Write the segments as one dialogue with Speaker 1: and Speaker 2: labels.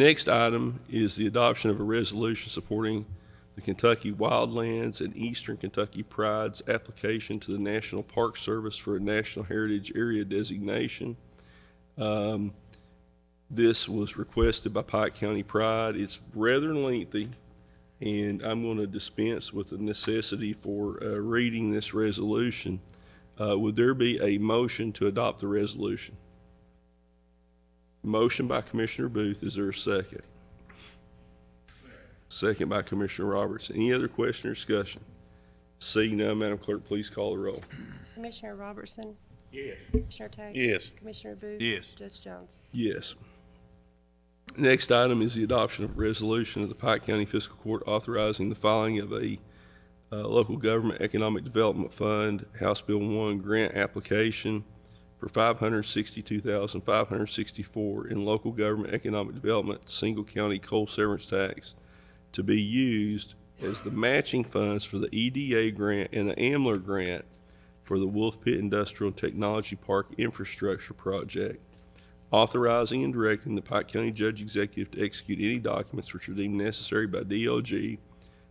Speaker 1: Next item is the adoption of a resolution supporting the Kentucky Wildlands and Eastern Kentucky Pride's application to the National Park Service for a National Heritage Area designation. Um, This was requested by Pike County Pride. It's rather lengthy, and I'm going to dispense with the necessity for uh, reading this resolution. Uh, Would there be a motion to adopt the resolution? Motion by Commissioner Booth, is there a second? Second by Commissioner Roberts. Any other question or discussion? Seeing none, Madam Clerk, please call the roll.
Speaker 2: Commissioner Robertson? Yes. Commissioner Tackett?
Speaker 3: Yes.
Speaker 2: Commissioner Booth?
Speaker 3: Yes.
Speaker 2: Judge Jones?
Speaker 1: Yes. Next item is the adoption of a resolution of the Pike County Fiscal Court authorizing the filing of a uh, local government economic development fund, House Bill 1 grant application for 562564 in local government economic development, single county coal severance tax to be used as the matching funds for the EDA grant and the AMLR grant for the Wolf Pit Industrial and Technology Park Infrastructure Project authorizing and directing the Pike County Judge Executive to execute any documents which are deemed necessary by DLG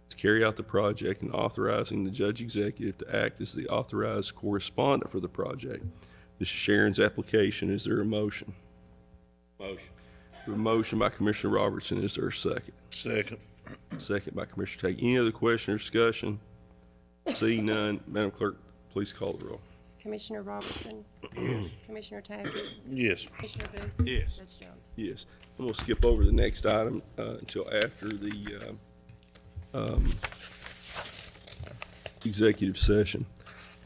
Speaker 1: to carry out the project and authorizing the Judge Executive to act as the authorized correspondent for the project. This is Sharon's application. Is there a motion?
Speaker 3: Motion.
Speaker 1: A motion by Commissioner Robertson. Is there a second?
Speaker 3: Second.
Speaker 1: Second by Commissioner Tackett. Any other question or discussion? Seeing none, Madam Clerk, please call the roll.
Speaker 2: Commissioner Robertson? Commissioner Tackett?
Speaker 3: Yes.
Speaker 2: Commissioner Booth?
Speaker 3: Yes.
Speaker 2: Judge Jones?
Speaker 1: Yes, I'm gonna skip over the next item uh, until after the um, um, executive session.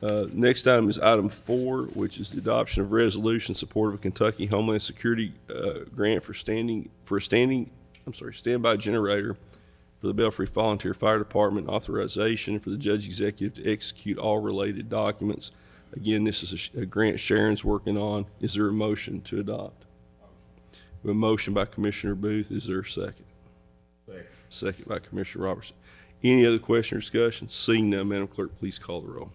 Speaker 1: Uh, Next item is item four, which is the adoption of resolution in support of a Kentucky Homeland Security uh, grant for standing, for a standing, I'm sorry, standby generator for the Belfry Volunteer Fire Department authorization for the judge executive to execute all related documents. Again, this is a sh- a grant Sharon's working on. Is there a motion to adopt? We have A motion by Commissioner Booth, is there a second? Second by Commissioner Robertson. Any other question or discussion? Seeing none, Madam Clerk, please call the roll.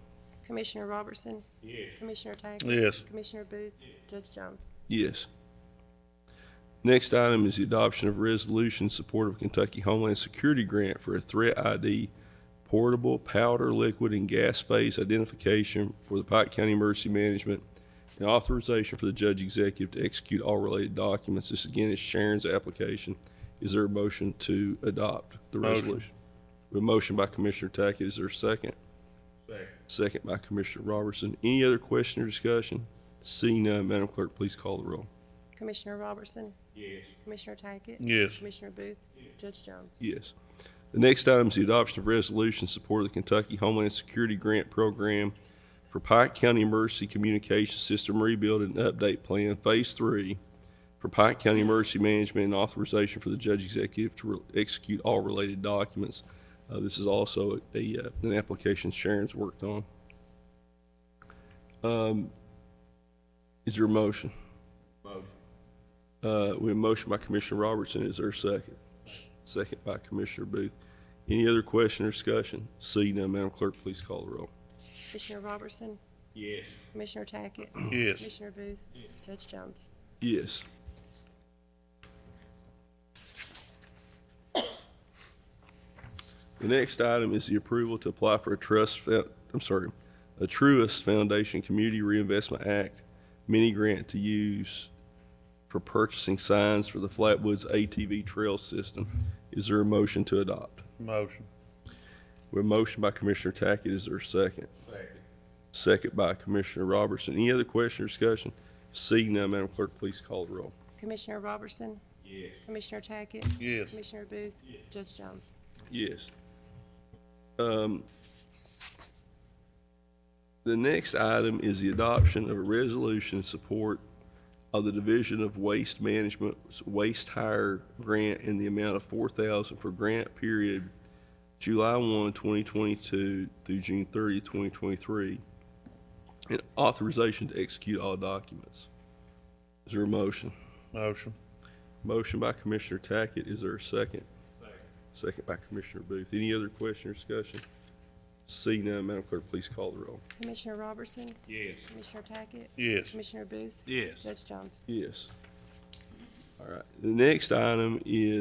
Speaker 2: Commissioner Robertson? Yes. Commissioner Tackett?
Speaker 3: Yes.
Speaker 2: Commissioner Booth? Judge Jones?
Speaker 1: Yes. Next item is the adoption of a resolution in support of Kentucky Homeland Security Grant for a threat ID portable powder, liquid, and gas phase identification for the Pike County Emergency Management and authorization for the judge executive to execute all related documents. This again is Sharon's application. Is there a motion to adopt the
Speaker 3: Motion.
Speaker 1: resolution? A motion by Commissioner Tackett. Is there a second? Second by Commissioner Robertson. Any other question or discussion? Seeing none, Madam Clerk, please call the roll.
Speaker 2: Commissioner Robertson? Yes. Commissioner Tackett?
Speaker 3: Yes.
Speaker 2: Commissioner Booth? Judge Jones?
Speaker 1: Yes. The next item is the adoption of resolution in support of the Kentucky Homeland Security Grant Program for Pike County Emergency Communication System Rebuild and Update Plan Phase Three for Pike County Emergency Management and authorization for the judge executive to re- execute all related documents. Uh, this is also a, uh, an application Sharon's worked on. Um, is there a motion? Motion. Uh, we have a motion by Commissioner Robertson. Is there a second? Second by Commissioner Booth. Any other question or discussion? Seeing none, Madam Clerk, please call the roll.
Speaker 2: Commissioner Robertson?
Speaker 3: Yes.
Speaker 2: Commissioner Tackett?
Speaker 3: Yes.
Speaker 2: Commissioner Booth? Judge Jones?
Speaker 1: Yes. The next item is the approval to apply for a trust, fo- I'm sorry, a Truist Foundation Community Reinvestment Act mini grant to use for purchasing signs for the Flatwoods ATV Trail System. Is there a motion to adopt?
Speaker 3: Motion.
Speaker 1: We have a motion by Commissioner Tackett. Is there a second? Second. Second by Commissioner Robertson. Any other question or discussion? Seeing none, Madam Clerk, please call the roll.
Speaker 2: Commissioner Robertson? Yes. Commissioner Tackett?
Speaker 3: Yes.
Speaker 2: Commissioner Booth? Judge Jones?
Speaker 1: Yes. Um, The next item is the adoption of a resolution in support of the Division of Waste Management's Waste Hire Grant in the amount of four thousand for grant period July 1, 2022 through June 30, 2023, and authorization to execute all documents. Is there a motion?
Speaker 3: Motion.
Speaker 1: Motion by Commissioner Tackett, is there a second? Second by Commissioner Booth. Any other question or discussion? Seeing none, Madam Clerk, please call the roll.
Speaker 2: Commissioner Robertson?
Speaker 3: Yes.
Speaker 2: Commissioner Tackett?
Speaker 3: Yes.
Speaker 2: Commissioner Booth?
Speaker 3: Yes.
Speaker 2: Judge Jones?
Speaker 1: Yes. All right. The next item is